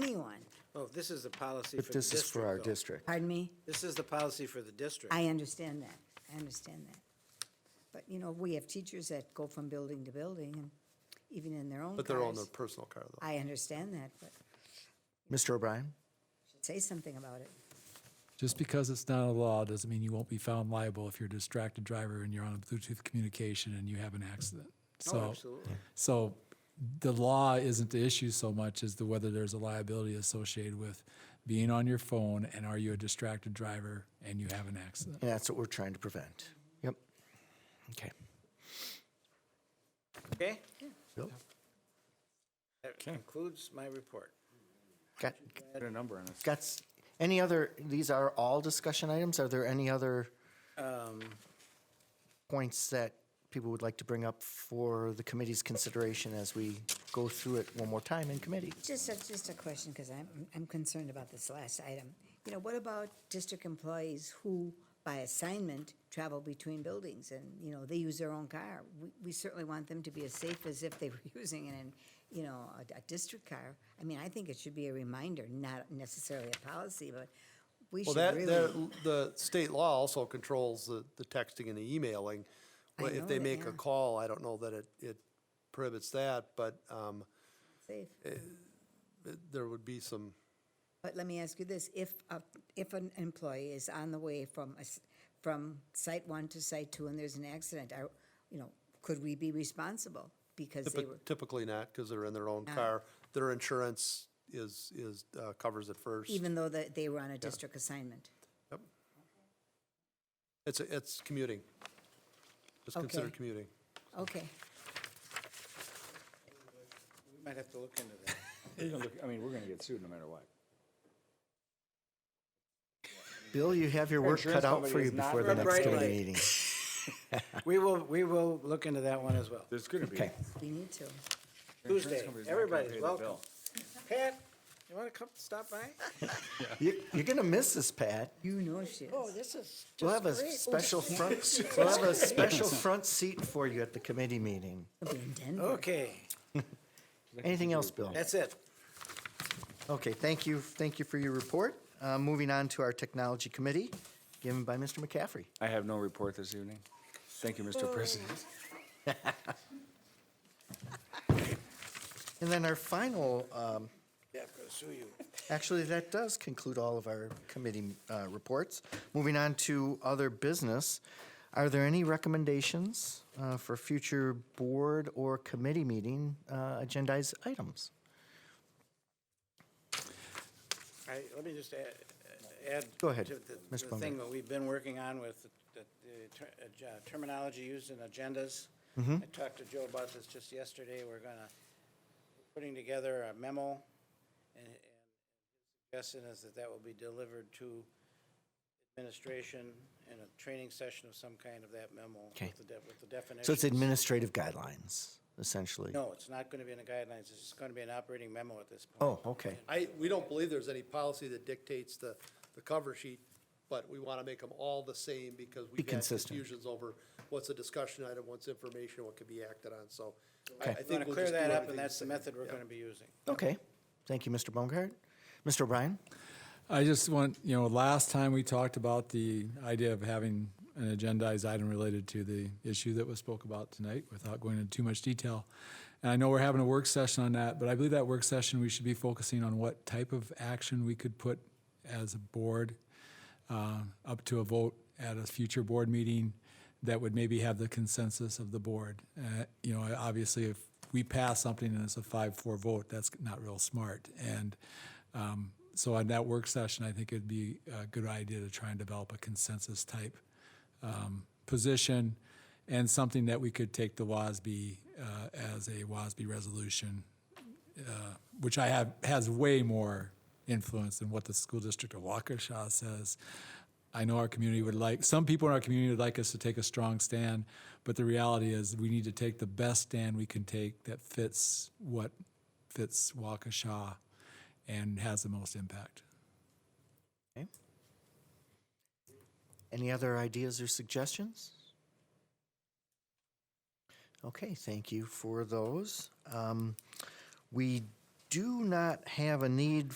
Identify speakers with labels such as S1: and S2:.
S1: anyone.
S2: Oh, this is the policy for
S3: But
S2: the
S3: this is for our
S2: district, though.
S3: district.
S1: Pardon me?
S2: This is the policy for the district.
S1: I understand that. I understand that. But, you know, we have teachers that go from building to building and even in their own
S4: But they're all in their
S1: cars.
S4: personal car, though.
S1: I understand that, but
S3: Mr. O'Brien?
S1: say something about it.
S5: Just because it's not a law doesn't mean you won't be found liable if you're a distracted driver and you're on a Bluetooth communication and you have an accident.
S2: Oh,
S5: So,
S2: absolutely.
S5: So the law isn't the issue so much as the whether there's a liability associated with being on your phone and are you a distracted driver and you have an accident.
S3: And that's what we're trying to prevent. Yep. Okay.
S2: Okay?
S3: Bill?
S2: That concludes my report.
S3: Got,
S6: Put a number on it.
S3: got, s- any other, these are all discussion items? Are there any other
S6: Um.
S3: points that people would like to bring up for the committee's consideration as we go through it one more time in committee?
S1: Just, a- just a question, because I'm, I'm concerned about this last item. You know, what about district employees who, by assignment, travel between buildings and, you know, they use their own car? We, we certainly want them to be as safe as if they were using an, you know, a, a district car. I mean, I think it should be a reminder, not necessarily a policy, but we
S4: Well,
S1: should
S4: that,
S1: really.
S4: that, the state law also controls the, the texting and the emailing.
S1: I
S4: Well,
S1: know
S4: If they
S1: that,
S4: make
S1: yeah.
S4: a call, I don't know that it, it prohibits that, but, um,
S1: safe.
S4: there would be some,
S1: But let me ask you this, if, a- if an employee is on the way from, a s- from site one to site two and there's an accident, are, you know, could we be responsible? Because they were,
S4: typi- typically not, because they're in their own
S1: Ah.
S4: car. Their insurance is, is, uh, covers it first.
S1: even though that they were on a district assignment?
S4: Yep. It's, it's commuting. It's
S1: Okay.
S4: considered commuting.
S1: Okay,
S2: We might have to look into that.
S6: You're gonna look- I mean, we're gonna get sued no matter what.
S3: Bill, you have your work
S6: Insurance
S3: cut out
S6: company
S3: for you
S6: is not
S3: before the next
S2: Right
S3: committee
S2: away.
S3: meeting.
S2: We will, we will look into that one as well.
S6: There's gonna be.
S3: Okay.
S1: we need to.
S6: insurance
S2: Tuesday,
S6: company's not gonna
S2: everybody's
S6: pay the
S2: welcome.
S6: bill.
S2: Pat, you want to come stop by?
S3: You- You're going to miss this, Pat.
S1: You know she is.
S2: this is
S3: We'll have a special front, we'll have a special front seat for you at the committee meeting.
S1: She'll be in Denver.
S2: Okay,
S3: Anything else, Bill?
S2: that's it.
S3: Okay, thank you, thank you for your report. Uh, Moving on to our technology committee, given by Mr. McCaffrey.
S6: I have no report this evening. Thank you, Mr. President.
S3: And then our final, um,
S2: Yeah, I'm going to sue you.
S3: actually, that does conclude all of our committee uh, reports. Moving on to other business, are there any recommendations uh, for future board or committee meeting uh, agendized items?
S2: I, let me just add. add
S3: Go ahead,
S2: to the-
S3: Ms.
S2: The
S3: Blumberg.
S2: thing that we've been working on with the- the ter- uh, terminology used in agendas.
S3: Mm-hmm.
S2: I talked to Joe about this just yesterday. We're gonna, putting together a memo, and and his suggestion is that that will be delivered to administration in a training session of some kind of that memo.
S3: Okay.
S2: With the de- with the definition.
S3: So it's administrative guidelines, essentially?
S2: No, it's not gonna be in the guidelines. It's just gonna be an operating memo at this point.
S3: Oh, okay.
S4: I, we don't believe there's any policy that dictates the, the cover sheet, but we want to make them all the same because we've had
S3: consistent.
S4: confusions over what's a discussion item, what's information, what could be acted on, so. I-
S3: Okay.
S4: I think
S2: We're gonna
S4: we'll
S2: clear
S4: just do
S2: that up,
S4: everything
S2: and that's the
S4: same.
S2: method we're
S4: Yeah.
S2: gonna be using.
S3: Okay, thank you, Mr. Baumgart. Mr. O'Brien?
S5: I just want, you know, last time we talked about the idea of having an agendized item related to the issue that was spoke about tonight without going into too much detail. And I know we're having a work session on that, but I believe that work session, we should be focusing on what type of action we could put as a board uh, up to a vote at a future board meeting that would maybe have the consensus of the board. Uh, You know, obviously, if we pass something and it's a five-four vote, that's not real smart. And um, so on that work session, I think it'd be a good idea to try and develop a consensus-type um, position and something that we could take the WASB uh, as a WASB resolution which I have has way more influence than what the school district of Waukesha says. I know our community would like some people in our community would like us to take a strong stand, but the reality is we need to take the best stand we can take that fits what fits Waukesha and has the most impact.
S3: Okay. Any other ideas or suggestions? Okay, thank you for those. Um, we do not have a need